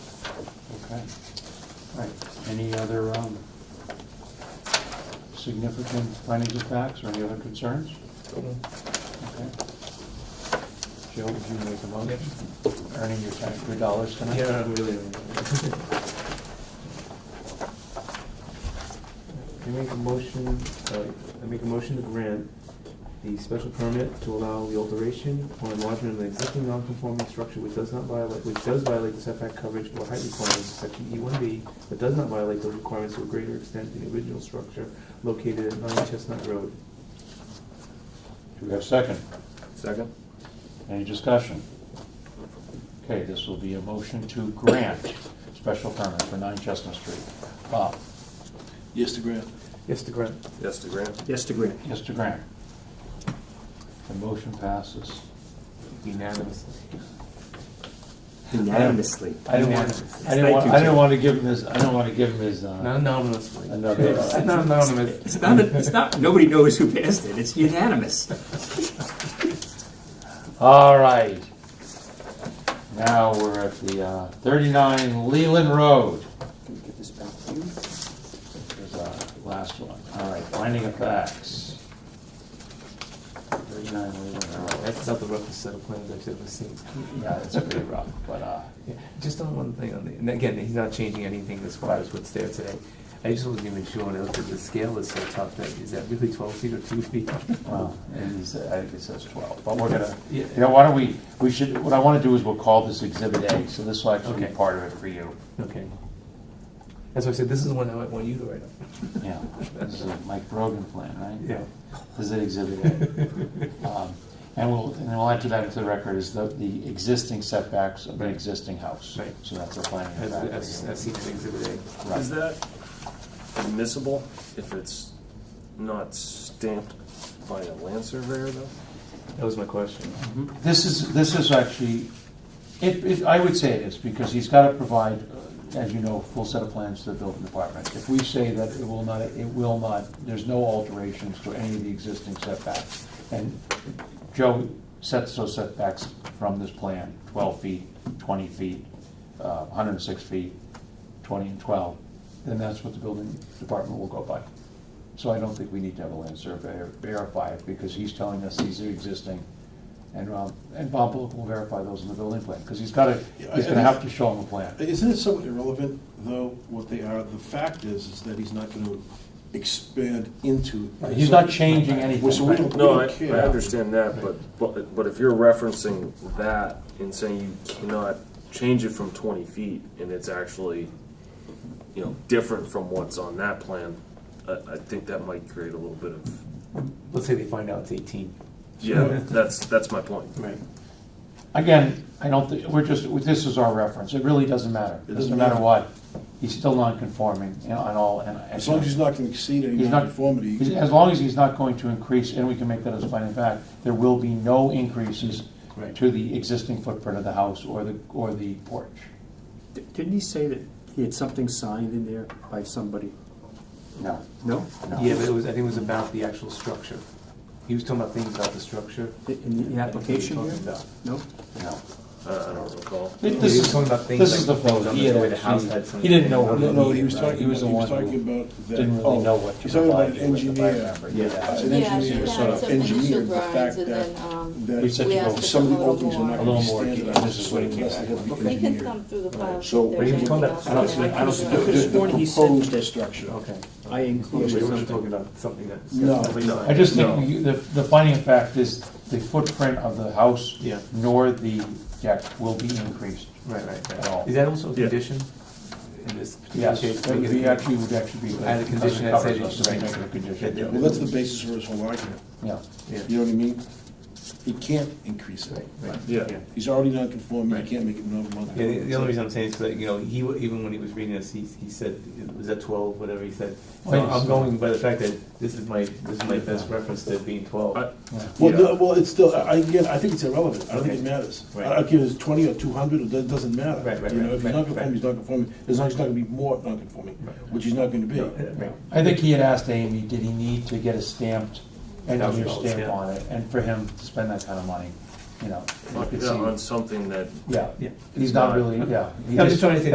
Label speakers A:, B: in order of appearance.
A: Okay. All right, any other um, significant findings of facts or any other concerns? Okay. Joe, would you make a motion? Earning your tax, your dollars tonight?
B: Yeah, really. I make a motion, uh, I make a motion to grant the special permit to allow the alteration or enlargement of an existing non-conforming structure which does not violate, which does violate the setback coverage or height requirements of section E one B, but does not violate those requirements to a greater extent than the original structure located at nine Chestnut Road.
A: Do we have a second?
C: Second?
A: Any discussion? Okay, this will be a motion to grant special permit for 9 Chestnut Street. Bob?
D: Yes, to grant.
B: Yes, to grant.
C: Yes to grant?
D: Yes, to grant.
A: Yes to grant. The motion passes.
B: Unanimously.
A: Unanimously. I didn't want,
B: Unanimously.
A: I didn't want, I
B: Thank you,
A: didn't
B: Jim.
A: want to give him his, I didn't want to give him his, uh,
B: Not anonymously.
A: another.
B: It's Not anonymous.
D: It's not, it's not, nobody knows who passed it, it's unanimous.
A: All right. Now we're at the uh, 39 Leland Road.
D: Can we get this back to you?
A: There's our last one. All right, finding of facts. 39 Leland Road.
B: That's not the roughest set of plans I've ever seen.
A: Yeah, it's pretty rough, but, uh,
B: Yeah, Just on one thing on the, and again, he's not changing anything as far as what's there today. I just wasn't even sure when I looked at the scale is so tough that, is that really twelve feet or two feet?
A: well, and he's- I think it says 12, but we're gonna,
B: Yeah.
A: you know, why don't we, we should, what I want to do is we'll call this Exhibit A, so this will actually be
B: Okay.
A: part of it for you.
B: Okay. That's why I said, this is the one I want you to write up.
A: Yeah, this is a Mike Brogan plan, right?
B: Yeah.
A: This is Exhibit A. Um, And we'll, and we'll enter that into the record as the, the existing setbacks of the
B: Right.
A: existing house.
B: Right.
A: So that's a planning
B: As,
A: fact.
B: as, as seen in exhibit A.
A: Right.
C: Is that admissible if it's not stamped by a land surveyor though?
B: That was my question.
A: This is, this is actually, it, it, I would say it is, because he's gotta provide, uh, as you know, full set of plans to the building department. If we say that it will not, it will not, there's no alterations to any of the existing setbacks. And Joe sets those setbacks from this plan, twelve feet, twenty feet, uh, hundred and six feet, twenty and twelve, then that's what the building department will go by. So I don't think we need to have a land surveyor verify it, because he's telling us these are existing. And, um, and Bob Bullock will verify those in the building plan, because he's gotta,
E: Yeah, I-
A: he's gonna have to show them a plan.
E: Isn't it somewhat irrelevant, though, what they are? The fact is, is that he's not going to expand into.
A: He's not changing anything.
E: So we don't, we
C: No, I,
E: don't
C: I
E: care.
C: understand that, but, but, but if you're referencing that and saying you cannot change it from twenty feet and it's actually, you know, different from what's on that plan, I, I think that might create a little bit of,
B: Let's say they find out it's eighteen.
C: yeah, that's, that's my point.
B: Right.
A: Again, I don't think, we're just, this is our reference, it really doesn't matter. Doesn't
E: It doesn't
A: matter
E: matter.
A: what, he's still non-conforming you know, on all, and.
E: As long as he's not going to exceed any
A: He's not-
E: nonconformity.
A: he's- As long as he's not going to increase, and we can make that as a finding of fact, there will be no increases
B: Right.
A: to the existing footprint of the house or the, or the porch.
D: D- Didn't he say that he had something signed in there by somebody?
A: No,
D: No?
A: no.
B: Yeah, but it was, I think it was about the actual structure. He was talking about things about the structure.
D: I- In the application
B: Talking
D: here?
B: about-
D: No?
A: No.
C: I, I don't recall.
A: Thi-
B: He
A: This
B: was
A: is,
B: talking about things
A: this
B: like
A: is the
B: things
A: photo.
B: on
A: He had
B: the way the house
A: actually-
B: had some-
A: He didn't know what.
E: No, no, he was
A: needed,
E: talking,
A: He was the
E: he was
A: one
E: talking
A: who
E: about that.
A: didn't really
E: oh,
A: know what to
E: He's talking about
A: provide
E: an
A: you with, if I
E: engineer.
A: remember.
E: As
A: Yeah.
E: an
F: Yeah, she
E: engineer,
F: had
E: sort of
F: some initial
E: engineered the fact
F: drawings and
E: that,
F: then, um,
E: that
A: We said
F: we
A: you
F: asked
A: go
F: for
E: some of the
F: a little
E: openings are
F: more.
E: not
A: A little
E: going to be
A: more
E: standardized.
A: detail. This is what he came back
E: unless they have
A: with.
E: the
F: They can
E: engineer.
F: come through the file.
E: So-
B: But
F: if
B: he was
F: there's
B: talking
F: anything
B: about-
F: else
B: I don't
F: that
B: see- I don't see-
F: comes up.
E: The- the
D: morning he said that-
E: Proposed structure.
B: Okay.
D: I
B: Yeah, we
D: included
B: weren't
D: something.
B: talking about something that's.
E: No.
A: I just think you- the, the finding of fact is the footprint of the house
B: Yeah.
A: nor the deck will be increased.
B: Right, right,
A: At all.
B: right. Is that also a
C: Yeah.
B: condition in this particular
A: Yes,
B: case?
A: it would be actually, would actually be.
B: Add a condition that says
A: Covers us,
B: it's-
A: make it a condition.
B: Yeah.
E: Well, that's the basis for his whole argument.
A: Yeah.
B: Yeah.
E: You know what I mean? He can't increase it.
B: Right.
C: Yeah.
E: He's already non-conforming,
B: Right.
E: he can't make it
B: Yeah, the, the only
E: non-conforming.
B: reason I'm saying is that, you know, he, wa- even when he was reading this, he, he said, was that twelve, whatever he said. So
A: Well, yes.
B: I'm going by the fact that this is my, this is my best reference to it being twelve.
C: I-
A: Yeah.
E: Well,
C: Yeah.
E: no, well, it's still, I, again, I think it's irrelevant, I don't think
B: Okay.
E: it matters. I
B: Right.
E: don't care if it's twenty or two hundred, it do- doesn't matter.
B: Right, right,
E: You know,
B: right,
E: if he's
B: right,
E: non-conforming,
B: right.
E: he's non-conforming, as long as he's not gonna be more non-conforming,
B: Right.
E: which he's not gonna be.
B: Right.
A: I think he had asked Amy, did he need to get a stamped, engineer
B: $1,000,
A: stamp
B: yeah.
A: on it, and for him to spend that kind of money, you know? you could
C: Yeah,
A: see-
C: On something that
A: Yeah,
B: Yeah.
A: he's not really, yeah. he
B: I'm just trying to say